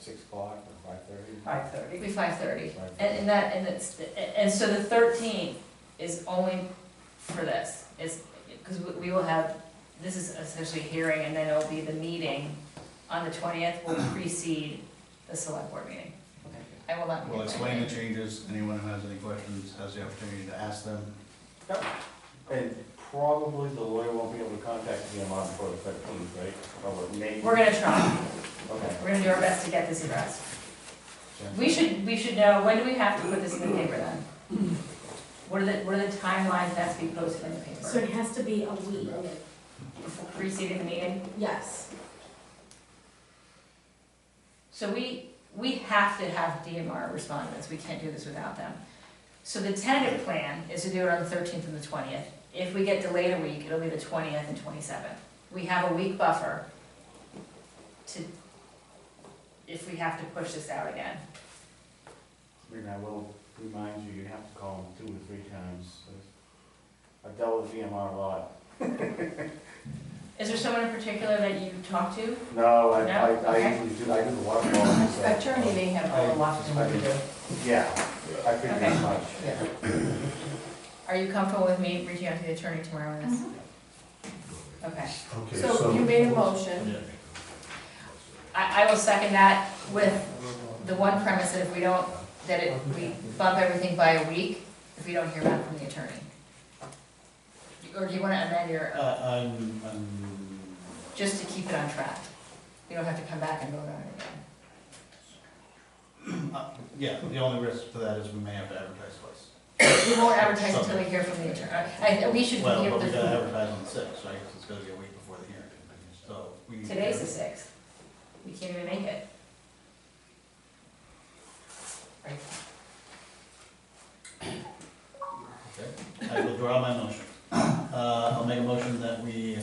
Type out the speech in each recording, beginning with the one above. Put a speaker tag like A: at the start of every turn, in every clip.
A: six o'clock or five thirty?
B: five thirty.
C: It'd be five thirty. And, and that, and it's, and so the thirteenth is only for this, it's, because we will have, this is essentially a hearing, and then it'll be the meeting on the twentieth will precede the select board meeting. I will not. be
D: We'll
C: at that
D: explain the
C: meeting.
D: changes, anyone who has any questions has the opportunity to ask them.
A: And probably the lawyer won't be able to contact me on March before the thirteenth, right? Or maybe,
C: We're gonna try,
A: okay.
C: we're gonna do our best to get this addressed. We should, we should know, when do we have to put this in the paper then? What are the, what are the timelines that's to be posted in the
E: So
C: paper?
E: it has to be a week,
C: Preceding the meeting?
E: yes.
C: So we, we have to have DMR respond to this, we can't do this without them. So the tentative plan is to do it on the thirteenth and the twentieth. If we get delayed a week, it'll be the twentieth and twenty-seventh. We have a week buffer to, if we have to push this out again.
A: I mean, I will remind you, you have to call them two or three times. I've dealt with VMR a lot.
C: Is there someone in particular that you talked to?
A: No, I,
C: No?
A: I, I
C: Okay.
A: usually do, I do the water law. so-
B: Attorney may have a lot to do.
A: Yeah, I figured
C: Okay.
A: as much.
B: Yeah.
C: Are you comfortable with me reaching out to the attorney tomorrow on this?
D: Mm-hmm.
C: Okay.
F: Okay,
B: So you made a motion,
C: I, I will second that with the one premise that if we don't, that it, we bump everything by a week if we don't hear back from the attorney. Or do you wanna amend your,
D: Uh, I'm, I'm.
C: just to keep it on track? We don't have to come back and vote on it again.
D: Uh, Yeah, the only risk to that is we may have to advertise twice.
C: We won't advertise until we hear from the attorney. I, we should
D: Well,
C: hear
D: but we gotta
C: the,
D: advertise on the sixth, right, 'Cause it's gonna be a week before the hearing, so we. need to-
C: today's the sixth. We can't even make it. Right,
D: I withdraw my motion. Uh, I'll make a motion that we,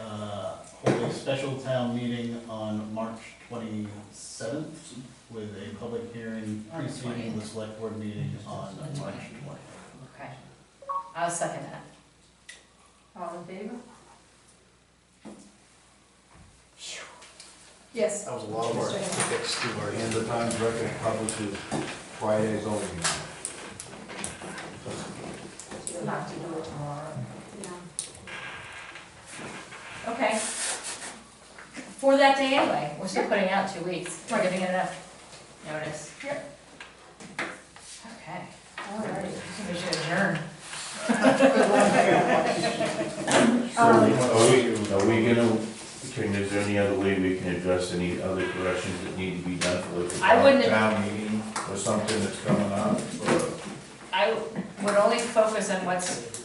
D: uh, hold a special town meeting on March twenty-seventh with a public hearing
C: On the
D: preceding the select board meeting on
C: On the
D: March
C: 20th.
D: twentieth.
C: okay. I'll second that.
B: all in favor? Yes.
D: That was a lot of work to fix Stuart.
F: And the Times Record publishes Friday's only.
B: You'll have to do it tomorrow.
E: Yeah.
C: Okay. For that day anyway, we're still putting out two weeks, we're giving it enough notice.
B: Yep.
C: Okay,
B: All right.
C: we should adjourn.
F: Are
B: Um,
F: we,
G: Are we gonna, can, is there any other way we can address any other corrections that need to be done for like? a
C: I wouldn't-
G: Town meeting or something that's coming up, or,
C: I would only focus on what's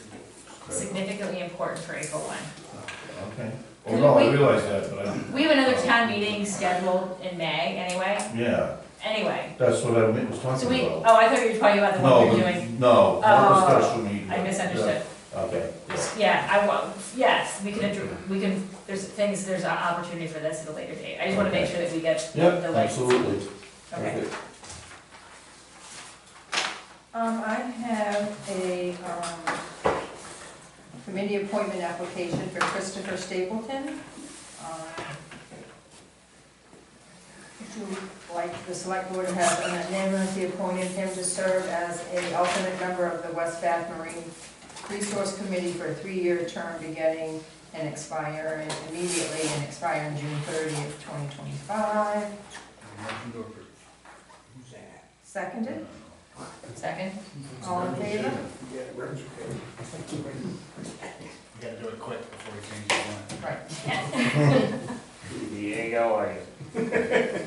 C: significantly important for April one.
G: okay. Well, no, I
C: Wait.
G: realize that, but I,
C: We have another town meeting scheduled in May anyway,
G: yeah,
C: anyway.
G: that's what I meant- was
C: So
G: talking
C: we,
G: about.
C: oh, I thought you were talking about the one
G: No,
C: we're
G: but-
C: doing,
G: No, not the
C: Oh,
G: special meeting.
C: I misunderstood.
G: Okay, yeah.
C: Yeah, I want, yes, we can, addr- we can, there's things, there's an opportunity for this at a later date. I just wanna make sure that we get the
G: Yep,
C: the, like,
G: absolutely.
C: okay.
B: Um, I have a, um, committee appointment application for Christopher Stapleton. Um, Would you like the select board to have unanimously appointed him to serve as a alternate member of the West Bath Marine Resource Committee for a three-year term beginning and expiring immediately and expiring June thirtieth, twenty twenty-five?
D: Motion to approve.
B: Seconded,
C: Second?
B: all in favor?
D: We gotta do it quick before we change the line.
B: Right.
A: There you go, I guess.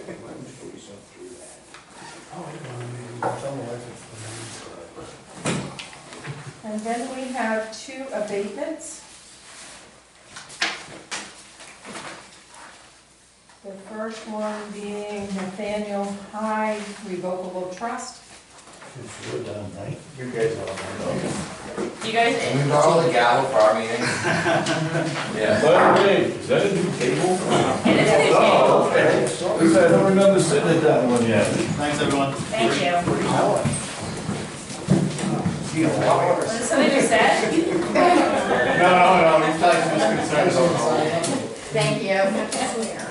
B: And then we have two abatements. The first one being Nathaniel High Revocable Trust.
A: You guys all know.
C: You guys,
F: Can we borrow the gavel for our meeting? Yeah.
G: By the way, is that a new table?
C: it is a new
G: Oh,
C: table.
G: okay. Because I don't remember sitting at that one yet.
D: Thanks, everyone.
C: Thank you.
F: Gee, a lot of-
C: Was it something you said?
F: No, no, no, these times, these concerns are all-
C: Thank you.